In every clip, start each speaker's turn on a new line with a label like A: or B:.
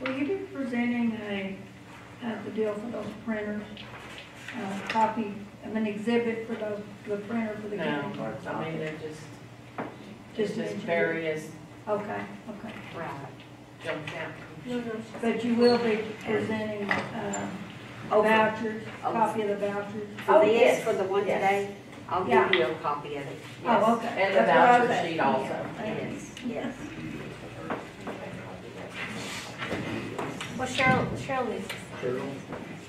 A: Will you be presenting a, uh, the deal for those printers? A copy of an exhibit for those, the printer for the
B: No,
A: county clerk's
B: Um, I mean,
A: office?
B: they're just,
A: Just
B: it's just
A: mentioned.
B: various
A: Okay, okay.
B: Right. jumped out.
A: But you will be presenting, uh,
C: Oh, for-
A: vouchers,
C: oh.
A: copy of the vouchers?
C: For
B: Oh,
C: this,
B: yes,
C: for the one
B: yes.
C: today, I'll
A: Yeah.
C: give you a copy of it.
B: Yes,
A: Oh, okay.
B: and the
A: That's what I was
B: voucher
A: asking.
B: sheet also.
A: Yeah.
C: Yes, yes.
D: Well, Cheryl, Cheryl is,
E: Cheryl,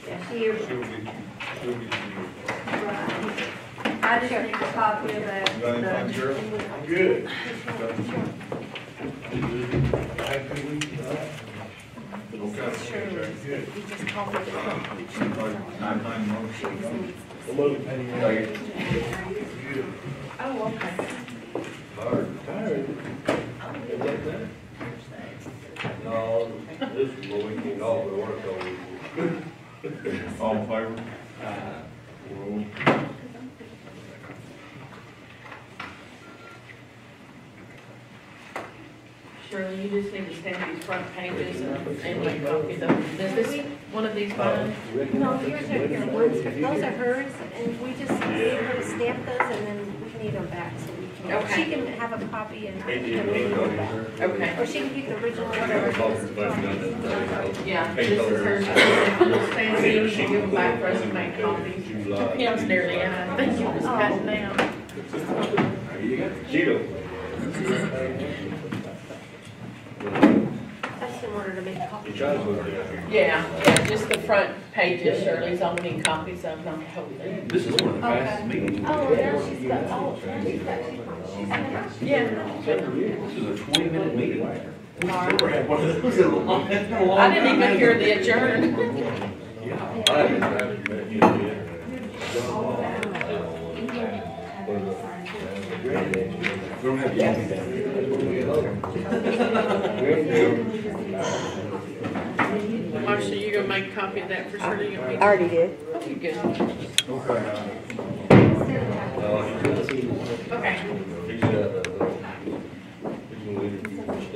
B: Yes.
E: she'll get, she'll get you.
A: Right. I just need a copy of that.
E: You got anything, Cheryl?
F: I'm good.
E: Happy week.
D: Cheryl
E: Okay.
D: is,
E: Good.
D: he just called me.
E: Like nine, nine months.
F: Hello.
E: Good.
B: Oh, okay.
E: Tired.
F: Tired? Is that better?
G: No, this is what we need all the work on.
E: All in favor? Roll.
B: Shirley, you just need to stamp these front pages and and make copies of them. Is this one of these mine?
D: No, here's her, your ones, but those are hers, and we just need her to stamp those, and then we need them back, so we can,
B: Okay.
D: she can have a copy and.
G: Hey, do
D: we
G: you
D: can
G: really
D: read
G: know
D: them back.
G: these?
B: Okay.
D: Or she can keep the original,
G: Yeah, both of them
D: whatever.
G: done that thing.
B: Yeah, this is hers. Stand here, you can give them back for us to make copies.
G: July.
B: Pam's nearly out. I think you just got it
A: Oh,
B: down.
G: Sheila.
D: That's in order to make
G: You
D: copies.
G: try to move it out.
B: Yeah, yeah, just the front pages, Shirley's only copies of them, hopefully.
H: This is one of the fastest meetings.
D: Oh, now she's got, oh, now she's got, she's got.
B: Yeah.
H: This is a twenty-minute meeting. We
B: Sorry.
H: never had one of those in a long, in a long
B: I didn't
H: time.
B: even hear the adjourn.
H: Yeah.
G: I didn't have to bet you
H: We don't have coffee down here.
B: Marcia, you gonna make a copy of that for Shirley? You want me-
C: already did.
B: Oh, you good.
E: Okay.
G: did.
B: Okay.
G: No, he's not. He's not that though. He's gonna leave it.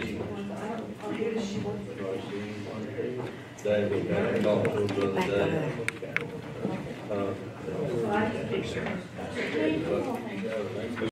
G: Dave was down and talked to him the other day. Uh,
A: Well, I just-
G: but-